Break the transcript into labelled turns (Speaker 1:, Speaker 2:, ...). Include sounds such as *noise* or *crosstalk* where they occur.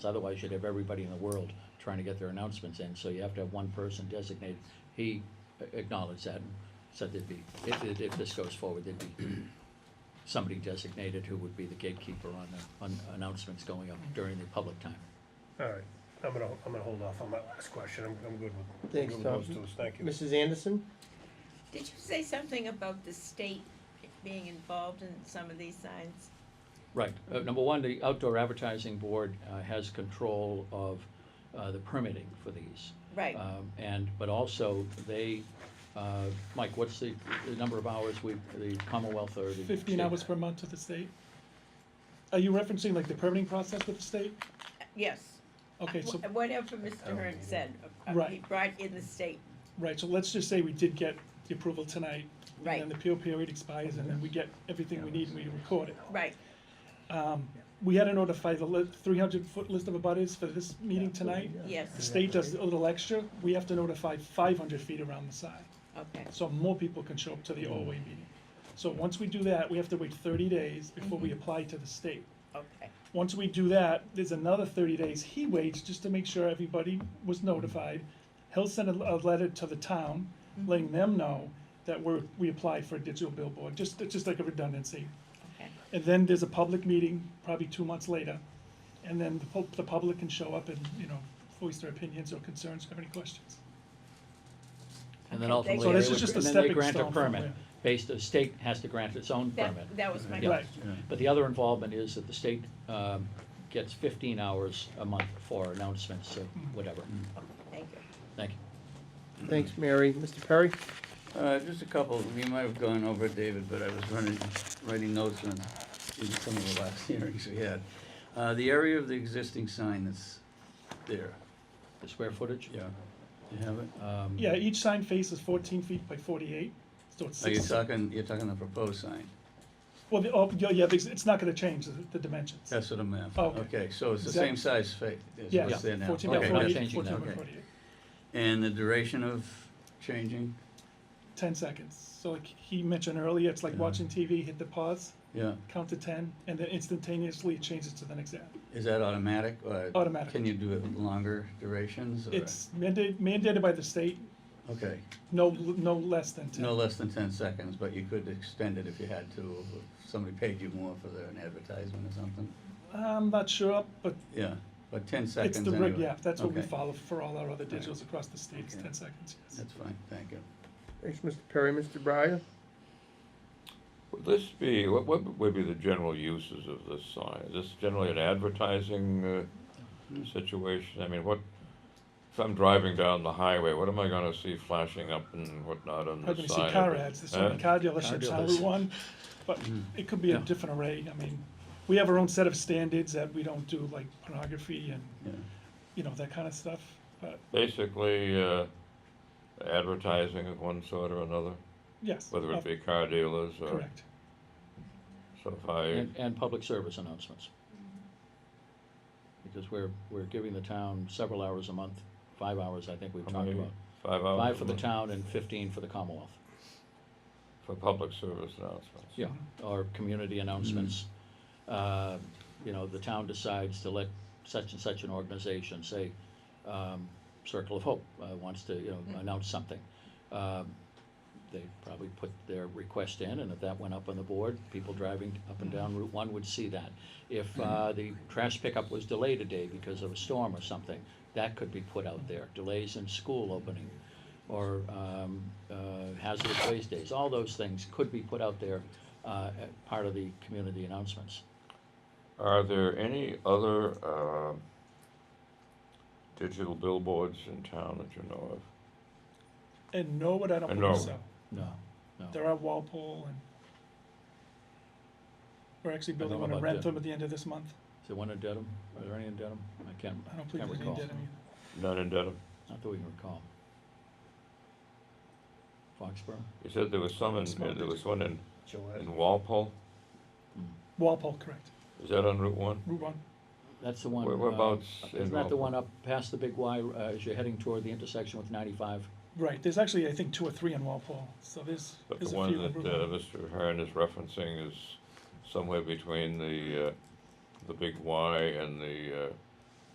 Speaker 1: Otherwise, you'd have everybody in the world trying to get their announcements in, so you have to have one person designated. He acknowledged that and said there'd be, if, if- if this goes forward, there'd be somebody designated who would be the gatekeeper on the, on announcements going up during the public time.
Speaker 2: All right, I'm gonna, I'm gonna hold off on my last question, I'm, I'm good with, I'm good
Speaker 3: Thanks,
Speaker 2: with those
Speaker 3: Tom.
Speaker 2: two, thank you.
Speaker 3: Mrs. Anderson?
Speaker 4: Did you say something about the state being involved in some of these signs?
Speaker 1: Right, uh, number one, the outdoor advertising board, uh, has control of, uh, the permitting for these.
Speaker 4: Right,
Speaker 1: Um, and, but also, they, uh, Mike, what's the, the number of hours we, the Commonwealth or the?
Speaker 5: Fifteen
Speaker 1: state-
Speaker 5: hours per month to the state? Are you referencing like the permitting process with the state?
Speaker 4: yes.
Speaker 5: Okay, so,
Speaker 4: Wh- Whatever Mr. Hearn said, uh, uh, he
Speaker 5: Right.
Speaker 4: brought in the state,
Speaker 5: right, so let's just say we did get the approval tonight.
Speaker 4: Right.
Speaker 5: And then the appeal period expires and then we get everything we need and we record it.
Speaker 4: right,
Speaker 5: We had to notify the li- three hundred foot list of abutters for this meeting tonight.
Speaker 4: yes,
Speaker 5: The state does a little extra, we have to notify five hundred feet around the side.
Speaker 4: okay,
Speaker 5: so more people can show up to the OA meeting. So once we do that, we have to wait thirty days before we apply to the state.
Speaker 4: okay,
Speaker 5: Once we do that, there's another thirty days he waits just to make sure everybody was notified. He'll send a, a letter to the town, letting them know that we're, we applied for a digital billboard, just, it's just like a redundancy.
Speaker 4: okay,
Speaker 5: And then there's a public meeting, probably two months later, and then the pub, the public can show up and, you know, voice their opinions or concerns, have any questions.
Speaker 1: And then
Speaker 4: Okay,
Speaker 1: ultimately,
Speaker 4: So
Speaker 1: they
Speaker 4: this is
Speaker 1: would,
Speaker 5: just a
Speaker 1: and then they
Speaker 5: stepping
Speaker 1: grant a
Speaker 5: stone from
Speaker 1: permit,
Speaker 5: there.
Speaker 1: based, the state has to grant its own
Speaker 4: that,
Speaker 1: permit.
Speaker 4: that was my
Speaker 1: Yeah.
Speaker 5: Right,
Speaker 4: question,
Speaker 1: But the other involvement is that the state, um, gets fifteen hours a month for announcements, or whatever.
Speaker 4: thank you.
Speaker 1: Thank you.
Speaker 3: Thanks, Mary. Mr. Perry?
Speaker 6: Uh, just a couple, you might have gone over, David, but I was running, writing notes on, in some of the last *laughs* hearings we had. Uh, the area of the existing sign that's there,
Speaker 1: The square footage?
Speaker 6: yeah, you have it?
Speaker 1: Um,
Speaker 5: yeah, e- each sign face is fourteen feet by forty-eight, so it's
Speaker 6: Are you
Speaker 5: six.
Speaker 6: talking, Oh, you're talking the proposed sign?
Speaker 5: Well, the, oh, yeah, yeah, it's it's not gonna change the, the dimensions.
Speaker 6: That's what I'm after.
Speaker 5: Okay.
Speaker 6: Okay, so it's the
Speaker 5: Exact-
Speaker 6: same size fa- as
Speaker 5: Yeah,
Speaker 6: what's there now?
Speaker 5: fourteen
Speaker 6: Okay,
Speaker 5: by
Speaker 1: not
Speaker 5: forty-eight,
Speaker 1: changing
Speaker 5: fourteen
Speaker 1: that.
Speaker 5: by
Speaker 6: Okay.
Speaker 5: forty-eight,
Speaker 6: And the duration of changing?
Speaker 5: ten seconds. So like he mentioned earlier, it's like
Speaker 6: Yeah.
Speaker 5: watching TV, hit the pause,
Speaker 6: Yeah,
Speaker 5: count to ten, and then instantaneously it changes to the next app.
Speaker 6: is that automatic or?
Speaker 5: Automatic.
Speaker 6: Can you do it longer durations or?
Speaker 5: It's mandated, mandated by the state,
Speaker 6: Okay,
Speaker 5: no, no less than ten.
Speaker 6: no less than ten seconds, but you could extend it if you had to, if somebody paid you more for their- an advertisement or something?
Speaker 5: I'm not sure, but
Speaker 6: Yeah, but ten seconds
Speaker 5: it's the
Speaker 6: anyway.
Speaker 5: reg, yeah, that's what we
Speaker 6: Okay,
Speaker 5: follow for all our other digitals across the state, it's
Speaker 6: Okay.
Speaker 5: ten seconds, yes.
Speaker 6: That's fine, thank you.
Speaker 3: Thanks, Mr. Perry. Mr. Breyer?
Speaker 7: Would this be, what, what would be the general uses of this sign? Is this generally an advertising uh,
Speaker 5: Mm-hmm.
Speaker 7: situation? I mean, what, if I'm driving down the highway, what am I gonna see flashing up and whatnot on
Speaker 5: Probably gonna
Speaker 7: the side?
Speaker 5: see car
Speaker 7: of it?
Speaker 5: ads, there's so many
Speaker 7: Huh?
Speaker 5: car dealerships
Speaker 1: Car
Speaker 5: on
Speaker 1: dealers.
Speaker 5: Route One, but it could be a
Speaker 6: Hmm. Yeah.
Speaker 5: different array, I mean, we have our own set of standards that we don't do like pornography and,
Speaker 6: Yeah.
Speaker 5: you know, that kind of stuff, but
Speaker 7: Basically, uh, advertising of one sort or another,
Speaker 5: yes.
Speaker 7: whether
Speaker 5: of-
Speaker 7: it be car dealers or,
Speaker 5: Correct,
Speaker 7: so if I,
Speaker 1: And, and public service announcements. Because we're, we're giving the town several hours a month, five hours, I think we've
Speaker 7: How
Speaker 1: talked
Speaker 7: many?
Speaker 1: about.
Speaker 7: five hours.
Speaker 1: Five for
Speaker 7: a
Speaker 1: the
Speaker 7: month
Speaker 1: town and fifteen for the Commonwealth,
Speaker 7: For public service announcements.
Speaker 1: yeah, or community announcements. Uh, you know, the town decides to let such and such an organization, say, um, Circle of Hope, uh, wants to, you know, announce something. Um, they probably put their request in, and if that went up on the board, people driving up and down Route One would see that. If, uh, the trash pickup was delayed a day because of a storm or something, that could be put out there, delays in school opening, or, um, uh, hazardous waste days, all those things could be put out there, uh, as part of the community announcements.
Speaker 7: Are there any other uh, digital billboards in town that you know of?
Speaker 5: and Norwood, I don't
Speaker 7: And
Speaker 5: believe
Speaker 7: Norwood.
Speaker 5: so,
Speaker 1: No, no.
Speaker 5: there are Walpole and we're actually building
Speaker 1: know
Speaker 5: one in
Speaker 1: about that.
Speaker 5: Rentham at the end of this month,
Speaker 1: Is there one in Dedham? Are there any in Dedham? I can't,
Speaker 5: I don't believe
Speaker 1: can't
Speaker 5: there's any
Speaker 1: recall.
Speaker 5: dead, I mean,
Speaker 7: None in Dedham?
Speaker 1: Not that we can recall. Foxborough?
Speaker 7: You said there was some in,
Speaker 5: Small
Speaker 7: there was one in,
Speaker 2: Gillette.
Speaker 7: in Walpole?
Speaker 5: Walpole, correct,
Speaker 7: Is that on Route One?
Speaker 5: Route One.
Speaker 1: That's the one.
Speaker 7: Where- whereabouts
Speaker 1: uh,
Speaker 7: in
Speaker 1: Isn't that the
Speaker 7: Walpole?
Speaker 1: one up past the Big Y, uh, as you're heading toward the intersection with ninety-five?
Speaker 5: Right, there's actually, I think, two or three in Walpole, so there's,
Speaker 7: But the
Speaker 5: there's a few.
Speaker 7: one that
Speaker 5: in
Speaker 7: uh,
Speaker 5: Brooklyn.
Speaker 7: Mr. Hearn is referencing is somewhere between the, uh, the Big Y and the uh,